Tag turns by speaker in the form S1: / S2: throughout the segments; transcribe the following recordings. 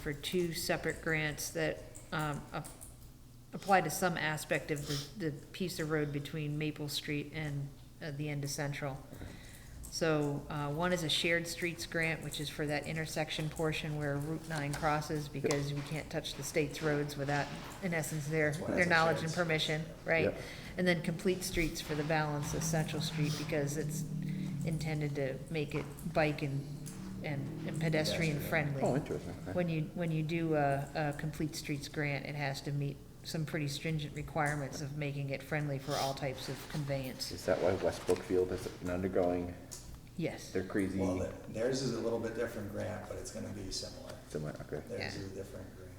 S1: for two separate grants that um, ap- apply to some aspect of the, the piece of road between Maple Street and uh, the end of Central. So uh, one is a shared streets grant, which is for that intersection portion where Route 9 crosses, because we can't touch the state's roads without, in essence, their,
S2: why
S1: their
S2: it's a
S1: knowledge
S2: shared
S1: and
S2: street.
S1: permission, right?
S2: Yep.
S1: And then complete streets for the balance of Central Street, because it's intended to make it bike and, and pedestrian friendly
S2: Oh, interesting. okay.
S1: when you, when you do a, a complete streets grant, it has to meet some pretty stringent requirements of making it friendly for all types of conveyance.
S2: Is that why West Brookfield is undergoing
S1: Yes,
S2: their crazy,
S3: Well, th- theirs is a little bit different grant, but it's gonna be similar.
S2: similar, okay.
S3: Theirs
S1: Yeah.
S3: is a different grant,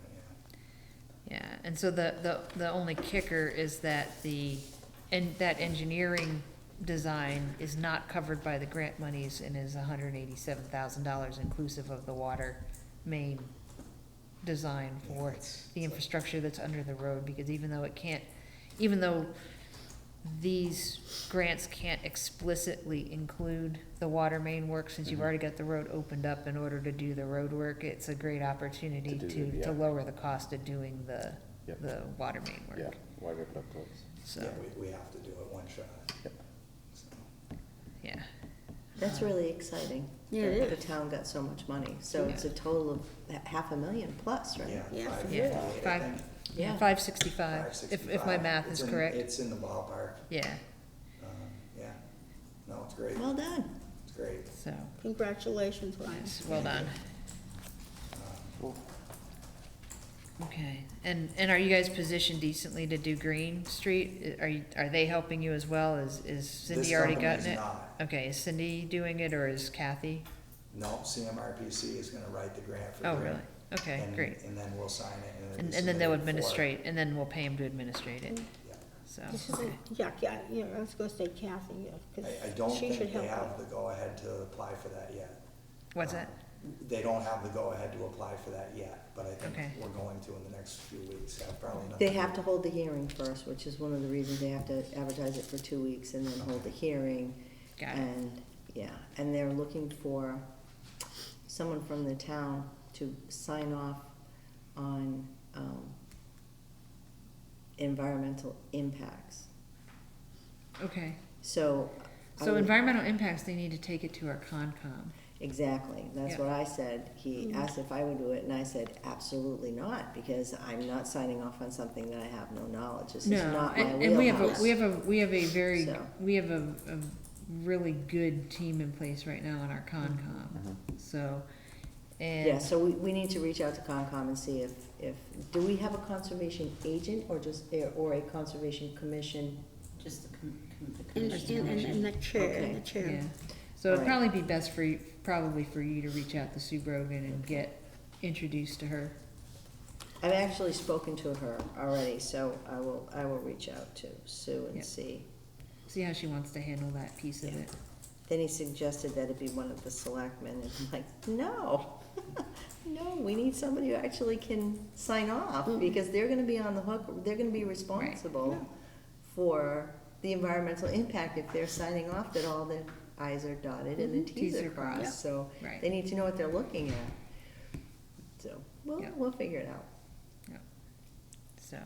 S3: yeah.
S1: yeah, and so the, the, the only kicker is that the, and that engineering design is not covered by the grant monies and is hundred and eighty-seven thousand dollars inclusive of the water main design for the
S3: It's- it's like-
S1: infrastructure that's under the road, because even though it can't, even though these grants can't explicitly include the water main work, since you've
S2: Mhm.
S1: already got the road opened up in order to do the road work, it's a great opportunity
S2: To do
S1: to,
S2: the-
S1: to
S2: yeah.
S1: lower the cost of doing the,
S2: Yep.
S1: the water main
S2: Yeah,
S1: work.
S2: why rip it up twice?
S1: So,
S3: Yeah, we, we have to do it one shot.
S2: Yep.
S3: so.
S1: yeah.
S4: That's really exciting.
S5: Yeah, it
S4: that The
S5: is.
S4: town got so much money, so it's a total of h- half a million plus, right?
S3: Yeah.
S5: Yeah,
S3: five
S5: for
S3: fifty-eight,
S1: sure.
S3: I
S1: Five-
S3: think.
S4: Yeah.
S1: Five sixty-five,
S3: Five
S1: if, if my
S3: sixty-five.
S1: math
S3: It's
S1: is
S3: in-
S1: correct,
S3: It's in the ballpark,
S1: yeah,
S3: um, yeah. No, it's great,
S4: Well done.
S3: it's great.
S1: so,
S5: Congratulations, Ryan.
S1: yes, well done.
S3: Um,
S1: Okay, and, and are you guys positioned decently to do Green Street? Are you, are they helping you as well? Is, is
S3: This
S1: Cindy already
S3: company
S1: gotten
S3: is
S1: it?
S3: not.
S1: Okay, is Cindy doing it or is Kathy?
S3: No, CMRPC is gonna write the grant for
S1: Oh,
S3: Grant,
S1: really? Okay,
S3: and-
S1: great.
S3: And then we'll sign it and. it'll be
S1: And, and then they'll
S3: submitted for-
S1: administrate, and then we'll pay them to administrate it,
S3: Yeah.
S1: so.
S5: This is,
S1: okay.
S5: yeah, yeah, yeah, I was gonna say Kathy, yeah,
S3: I, I don't
S5: because she should
S3: think they
S5: help.
S3: have
S5: out.
S3: the go-ahead to apply for that yet.
S1: What's
S3: Um,
S1: that?
S3: They don't have the go-ahead to apply for that yet, but I think
S1: Okay.
S3: we're going to in the next few weeks, have probably not.
S4: They have to hold the hearing first, which is one of the reasons they have to advertise it for two weeks and then hold the hearing.
S1: Got it,
S4: And, yeah, and they're looking for someone from the town to sign off on, um, environmental impacts.
S5: Uh,
S1: okay.
S4: So. I
S1: So
S4: would-
S1: environmental impacts, they need to take it to our Concom.
S4: Exactly, that's
S1: Yeah. Mm-hmm.
S4: what I said. He
S5: Mhm.
S4: asked if I would do it, and I said, absolutely not, because I'm not signing off on something that I have no knowledge. This is
S1: No,
S4: not my
S1: and, and we have a,
S4: wheelhouse.
S1: we have a, we have a very,
S4: So.
S1: we have a, a really good team in place right now on our Concom,
S4: Mm-hmm.
S1: so. and-
S4: Yeah, so we, we need to reach out to Concom and see if, if, do we have a conservation agent or just, eh, or a conservation commission?
S6: Just the com- com- the
S5: And, and, and-
S6: commission.
S5: and the chair, and the
S4: Okay.
S1: Yeah,
S5: chair.
S1: so it'd
S4: Right.
S1: probably be best for you, probably for you to reach out to Sue Brogan and get introduced to her.
S4: I've actually spoken to her already, so I will, I will reach out to Sue
S1: Yeah.
S4: and see.
S1: See how she wants to handle that piece of
S4: Yeah.
S1: it.
S4: Then he suggested that it be one of the selectmen, and I'm like, no. No, we need somebody who actually can sign off,
S1: Mm-hmm.
S4: because they're gonna be on the hook, they're gonna be responsible for the environmental impact if they're signing off that all the i's are dotted and the
S1: Mhm.
S4: t's
S1: Ts
S4: are
S1: are crossed.
S4: crossed, so
S1: Right.
S4: they need to know what they're looking at. So, we'll,
S1: Yeah.
S4: we'll figure it out.
S1: So,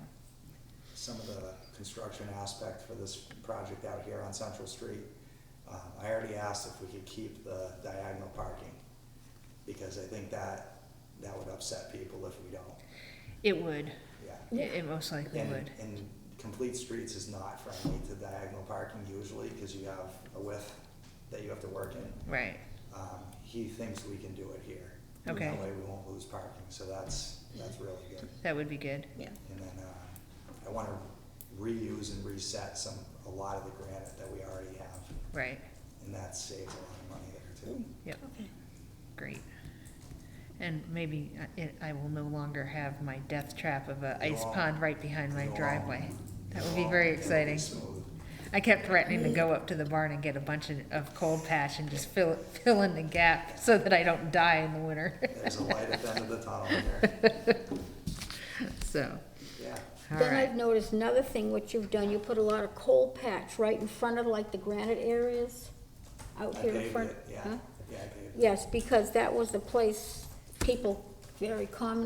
S3: Some of the construction aspect for this project out here on Central Street, um, I already asked if we could keep the diagonal parking, because I think that, that would upset people if we don't,
S1: it would,
S3: yeah.
S1: it, it most likely
S3: And-
S1: would.
S3: And complete streets is not friendly to diagonal parking usually, because you have a width that you have to work in.
S1: Right,
S3: Um, he thinks we can do it here.
S1: Okay.
S3: That way we won't lose parking, so that's, that's really good.
S1: that would be good.
S5: Yeah.
S3: And then, uh, I wanna reuse and reset some, a lot of the granite that we already have,
S1: Right,
S3: and that saves a lot of money there too.
S1: yep,
S5: Okay.
S1: great. And maybe I- it, I will no longer have my death trap of a
S3: You
S1: ice
S3: won't.
S1: pond right behind my
S3: You won't.
S1: driveway. That would be
S3: Well,
S1: very
S3: it'll
S1: exciting.
S3: smooth.
S1: I kept threatening to go up to the barn and get a bunch of, of cold patch and just fill, fill in the gap so that I don't die in the winter,
S3: There's a light at the end of the tunnel there,
S1: so,
S3: yeah.
S1: all
S5: Then I've
S1: right.
S5: noticed another thing, what you've done, you put a lot of coal patch right in front of like the granite areas, out
S3: I
S5: here in
S3: paved
S5: front.
S3: it, yeah,
S5: Huh?
S3: yeah, I paved it.
S5: Yes, because that was the place people very commonly